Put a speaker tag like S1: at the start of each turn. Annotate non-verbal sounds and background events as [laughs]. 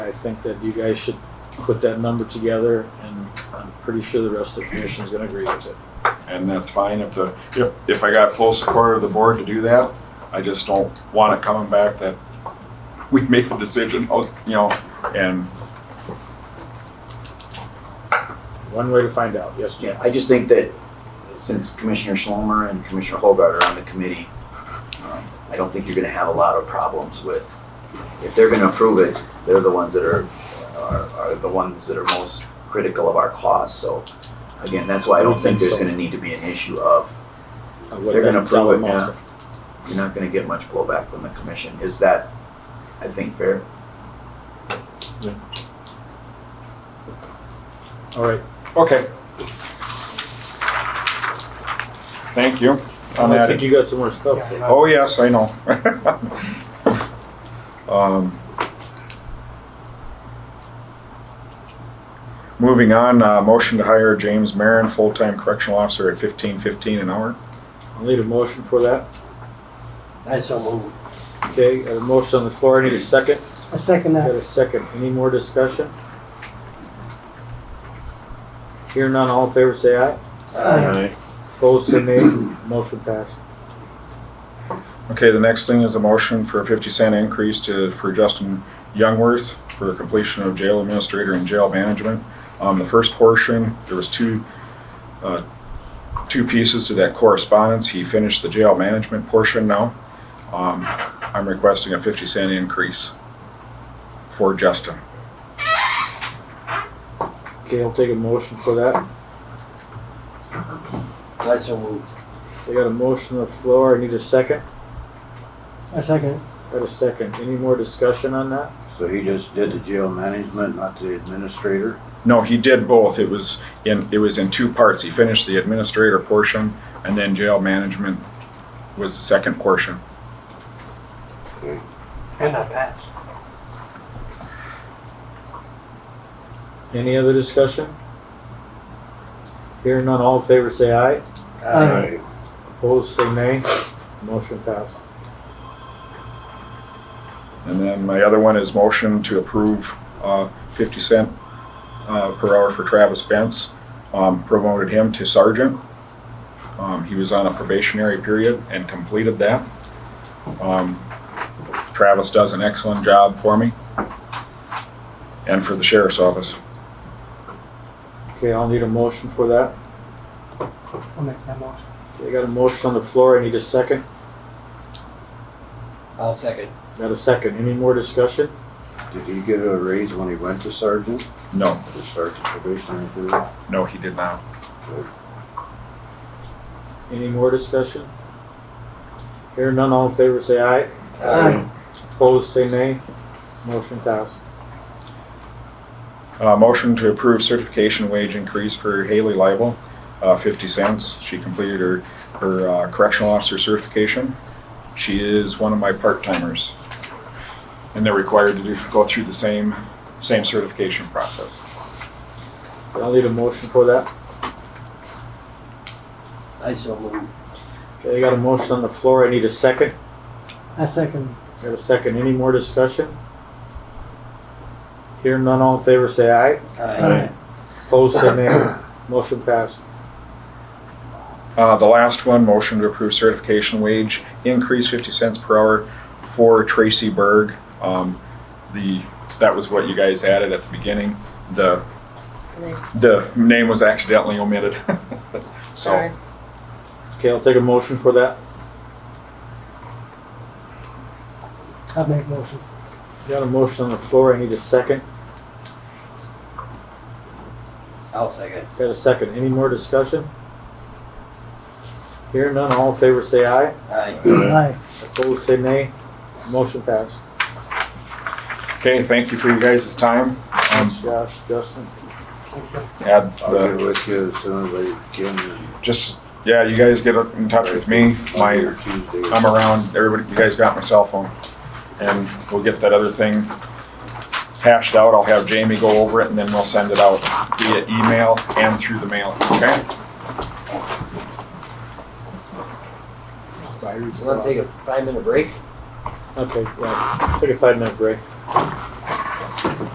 S1: I think that you guys should put that number together and I'm pretty sure the rest of the commission's gonna agree with it.
S2: and that's fine if the, if, if I got full support of the board to do that, I just don't want it coming back that we make a decision, oh, it's, you know, and
S1: One way to find out, yes, Jim?
S3: Yeah, I just think that since Commissioner Schlomer and Commissioner Hobart are on the committee, um, I don't think you're gonna have a lot of problems with, if they're gonna approve it, they're the ones that are, are, are the ones that are most critical of our costs, so again, that's why I don't think there's gonna need to be an issue of,
S1: Uh, what
S3: they're gonna
S1: that dollar
S3: approve it now.
S1: amount.
S3: You're not gonna get much blowback from the commission, is that, I think, fair?
S1: All right,
S2: Okay. Thank you on
S1: I
S2: that.
S1: think you got some more stuff. for me.
S2: Oh, yes, I know. [laughs] Um, Moving on, uh, motion to hire James Marin, full-time correctional officer at fifteen fifteen an hour.
S1: I'll need a motion for that.
S4: I so move.
S1: Okay, got a motion on the floor, I need a second.
S4: I second
S1: Got
S4: that.
S1: a second. Any more discussion? Here none, all in favor say aye.
S4: Uh,
S1: Opposed, say
S3: [clears throat]
S1: nay. Motion passed.
S2: Okay, the next thing is a motion for a fifty cent increase to, for Justin Youngworth for completion of jail administrator and jail management. Um, the first portion, there was two, uh, two pieces to that correspondence. He finished the jail management portion now. Um, I'm requesting a fifty cent increase for Justin.
S1: Okay, I'll take a motion for that.
S4: I so move.
S1: They got a motion on the floor, I need a second.
S4: I second.
S1: Got a second. Any more discussion on that?
S5: So he just did the jail management, not the administrator?
S2: No, he did both. It was in, it was in two parts. He finished the administrator portion and then jail management was the second portion.
S4: And I passed.
S1: Any other discussion? Here none, all in favor say aye.
S4: Aye.
S1: Opposed, say nay. Motion passed.
S2: And then my other one is motion to approve uh, 50 cent uh, per hour for Travis Benz. Um, Promoted him to sergeant. Um, He was on a probationary period and completed that. Um, Travis does an excellent job for me and for the sheriff's office.
S1: Okay, I'll need a motion for that.
S4: I'll make that motion.
S1: They got a motion on the floor, I need a second.
S4: I'll second.
S1: Got a second. Any more discussion?
S5: Did he get a raise when he went to sergeant?
S2: No,
S5: The sergeant probationary period?
S2: no, he did not.
S1: Any more discussion? Here none, all in favor say aye.
S4: Aye.
S1: Opposed, say nay. Motion passed.
S2: Uh, Motion to approve certification wage increase for Haley Leibel, uh, 50 cents. She completed her her uh, correctional officer certification. She is one of my part-timers. And they're required to do- go through the same, same certification process.
S1: I'll need a motion for that.
S4: I so move.
S1: Okay, I got a motion on the floor, I need a second.
S4: I second.
S1: Got a second, any more discussion? Here none, all in favor say aye.
S4: Aye.
S1: Opposed, say
S4: [coughs]
S1: nay. Motion passed.
S2: Uh, The last one, motion to approve certification wage increase 50 cents per hour for Tracy Berg. Um, The, that was what you guys added at the beginning. The, the name was accidentally omitted. [laughs] So,
S6: Sorry.
S1: Okay, I'll take a motion for that.
S4: I'll make motion.
S1: Got a motion on the floor, I need a second.
S4: I'll second.
S1: Got a second, any more discussion? Here none, all in favor say aye.
S4: Aye. Aye.
S1: Opposed, say nay. Motion passed.
S2: okay, thank you for you guys' time. Um,
S1: Thanks, Josh, Justin.
S2: Add
S5: I'll
S2: the
S5: get with you as soon as I can. and
S2: just yeah you guys get in touch with me
S5: Monday
S2: my
S5: or Tuesday.
S2: i'm around everybody you guys got my cell phone and we'll get that other thing hashed out i'll have jamie go over it and then we'll send it out via email and through the mail okay
S4: take a five minute break?
S1: Okay, yeah, take a five minute break.